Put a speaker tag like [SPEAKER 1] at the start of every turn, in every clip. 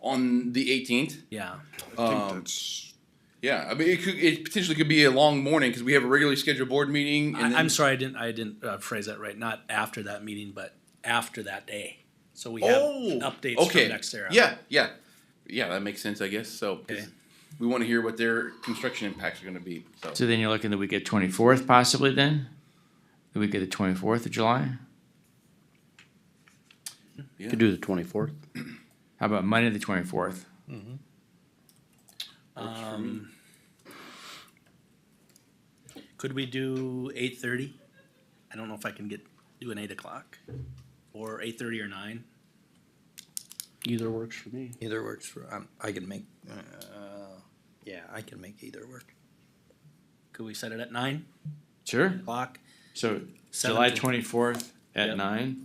[SPEAKER 1] on the eighteenth.
[SPEAKER 2] Yeah.
[SPEAKER 3] I think that's,
[SPEAKER 1] Yeah, I mean, it could, it potentially could be a long morning because we have a regularly scheduled board meeting. and
[SPEAKER 2] I,
[SPEAKER 1] then-
[SPEAKER 2] I'm sorry, I didn't, I didn't uh, phrase that right. Not after that meeting, but after that day. So we have
[SPEAKER 1] Oh,
[SPEAKER 2] updates
[SPEAKER 1] okay.
[SPEAKER 2] from NextEra.
[SPEAKER 1] Yeah, yeah, yeah. That makes sense, I guess. So 'cause
[SPEAKER 2] Okay.
[SPEAKER 1] we want to hear what their construction impacts are going to be. So,
[SPEAKER 4] So then you're looking the week of twenty-fourth possibly then? The week of the twenty-fourth of July?
[SPEAKER 5] Could do the twenty-fourth.
[SPEAKER 4] How about Monday, the twenty-fourth?
[SPEAKER 2] Um, could we do eight thirty? I don't know if I can get do an eight o'clock or eight thirty or nine.
[SPEAKER 5] Either works for me.
[SPEAKER 6] Either works for, um, I can make, uh, yeah, I can make either work.
[SPEAKER 2] Could we set it at nine
[SPEAKER 4] Sure.
[SPEAKER 2] o'clock?
[SPEAKER 4] So
[SPEAKER 2] Seven
[SPEAKER 4] July
[SPEAKER 2] to-
[SPEAKER 4] twenty-fourth
[SPEAKER 2] Yep.
[SPEAKER 4] at nine.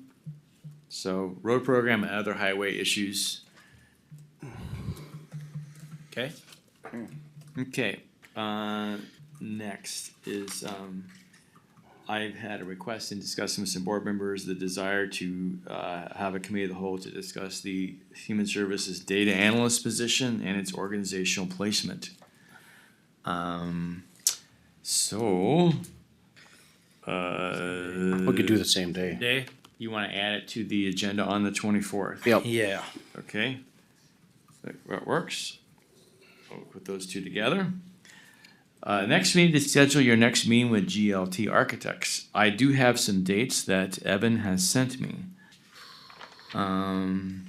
[SPEAKER 4] So road program and other highway issues.
[SPEAKER 2] Okay.
[SPEAKER 4] Okay, uh, next is, um, I've had a request in discussing with some board members the desire to, uh, have a committee of the whole to discuss the human services data analyst position and its organizational placement. Um, so, uh.
[SPEAKER 5] We could do the same day.
[SPEAKER 2] Day.
[SPEAKER 4] You wanna add it to the agenda on the twenty-fourth?
[SPEAKER 5] Yep.
[SPEAKER 6] Yeah.
[SPEAKER 4] Okay, that that works. I'll Put those two together. Uh, next, we need to schedule your next meeting with GLT Architects. I do have some dates that Evan has sent me. Um,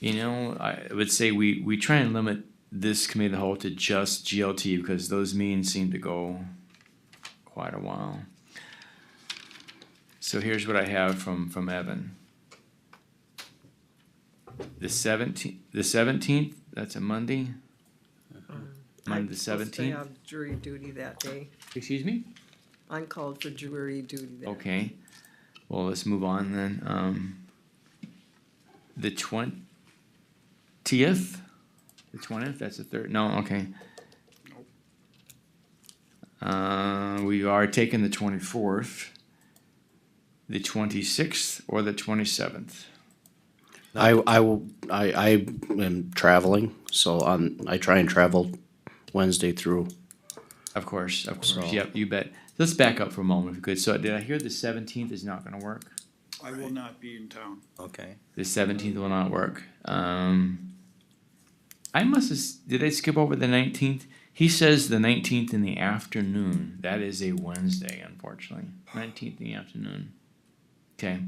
[SPEAKER 4] you know, I would say we, we try and limit this committee of the whole to just GLT because those meetings seem to go quite a while. So here's what I have from, from Evan. The seventeenth, the seventeenth, that's a Monday? Monday the
[SPEAKER 7] I'm supposed to
[SPEAKER 4] seventeenth,
[SPEAKER 7] have Jury duty that day.
[SPEAKER 4] excuse me?
[SPEAKER 7] I'm called for jury duty that
[SPEAKER 4] Okay, well, let's move on then, um. The twentieth, the twentieth, that's the third, no, okay. Uh, we are taking the twenty-fourth, the twenty-sixth, or the twenty-seventh.
[SPEAKER 5] I, I will, I, I am traveling, so on, I try and travel Wednesday through.
[SPEAKER 4] Of course, of course.
[SPEAKER 5] So-
[SPEAKER 4] Yep, you bet. Let's back up for a moment if we could. So did I hear the seventeenth is not gonna work?
[SPEAKER 3] I will not be in town.
[SPEAKER 6] Okay.
[SPEAKER 4] The seventeenth will not work. Um I must have, s- did I skip over the nineteenth? He says the nineteenth in the afternoon. That is a Wednesday, unfortunately. Nineteenth in the afternoon. Okay.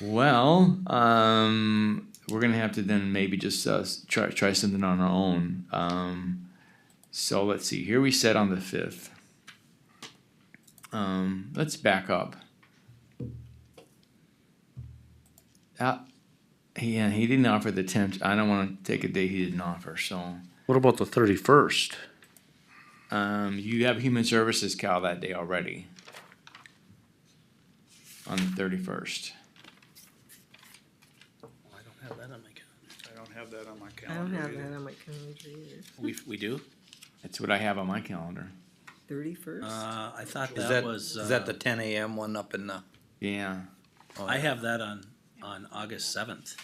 [SPEAKER 4] Well, um we're gonna have to then maybe just uh, s- try try something on our own. Um so let's see. Here we said on the fifth. Um, let's back up. Uh, yeah, he didn't offer the tenth. I don't want to take a day he didn't offer. So,
[SPEAKER 5] What about the thirty-first?
[SPEAKER 4] um, you have human services Cal that day already on the thirty first.
[SPEAKER 2] I don't have that on my calendar.
[SPEAKER 3] I don't have that on my
[SPEAKER 7] I don't
[SPEAKER 3] calendar
[SPEAKER 7] have
[SPEAKER 3] either.
[SPEAKER 7] that on my calendar either.
[SPEAKER 2] We we do.
[SPEAKER 4] That's what I have on my calendar.
[SPEAKER 7] Thirty-first?
[SPEAKER 2] Uh, I thought
[SPEAKER 6] Is
[SPEAKER 2] that,
[SPEAKER 6] that,
[SPEAKER 2] was.
[SPEAKER 6] is that
[SPEAKER 2] uh,
[SPEAKER 6] the ten AM one up in the? oh,
[SPEAKER 4] Yeah.
[SPEAKER 2] I have that on on August seventh.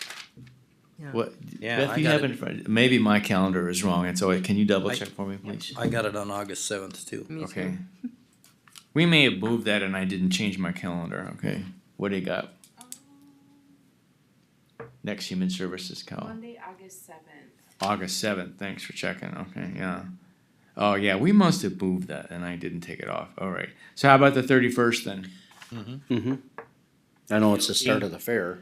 [SPEAKER 4] What?
[SPEAKER 6] Yeah,
[SPEAKER 4] Beth,
[SPEAKER 6] I
[SPEAKER 4] you
[SPEAKER 6] got
[SPEAKER 4] have
[SPEAKER 6] it.
[SPEAKER 4] in front. Maybe my calendar is wrong. It's always. Can you double
[SPEAKER 6] I-
[SPEAKER 4] check for me, please?
[SPEAKER 6] I got it on August seventh too.
[SPEAKER 7] Me
[SPEAKER 4] Okay.
[SPEAKER 7] too.
[SPEAKER 4] We may have moved that, and I didn't change my calendar. Okay. What do you got? Next human services Cal.
[SPEAKER 8] Monday, August seventh.
[SPEAKER 4] August seventh. Thanks for checking. Okay, yeah. Oh yeah, we must have moved that, and I didn't take it off. All right. So how about the thirty first then?
[SPEAKER 5] Mm-hmm. I know it's the start of the fair.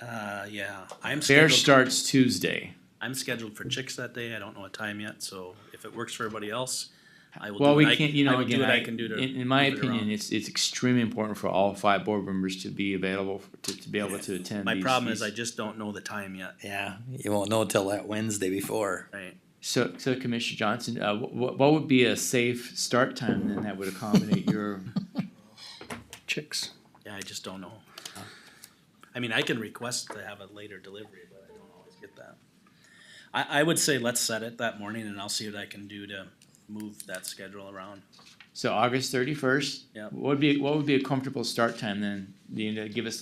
[SPEAKER 2] Uh, yeah, I'm
[SPEAKER 4] Fair
[SPEAKER 2] scheduled.
[SPEAKER 4] starts Tuesday.
[SPEAKER 2] I'm scheduled for chicks that day. I don't know a time yet, so if it works for everybody else, I will.
[SPEAKER 4] Well,
[SPEAKER 2] do
[SPEAKER 4] we
[SPEAKER 2] what I-
[SPEAKER 4] can't. You
[SPEAKER 2] I
[SPEAKER 4] know,
[SPEAKER 2] will
[SPEAKER 4] again,
[SPEAKER 2] do what I, can do to.
[SPEAKER 4] in, in my
[SPEAKER 2] move it around.
[SPEAKER 4] opinion, it's it's extremely important for all five board members to be available for, to, to be able to attend.
[SPEAKER 2] my
[SPEAKER 4] these-
[SPEAKER 2] problem is I
[SPEAKER 4] these-
[SPEAKER 2] just don't know the time yet.
[SPEAKER 6] Yeah, you won't know till that Wednesday before.
[SPEAKER 2] Right.
[SPEAKER 4] So, so Commissioner Johnson, uh, what what would be a safe start time then that would accommodate your?
[SPEAKER 5] Chicks.
[SPEAKER 2] Yeah, I just don't know. I mean, I can request to have a later delivery, but I don't always get that. I, I would say let's set it that morning and I'll see what I can do to move that schedule around.
[SPEAKER 4] So August thirty first.
[SPEAKER 2] Yep.
[SPEAKER 4] What would be what would be a comfortable start time then? You know, give us a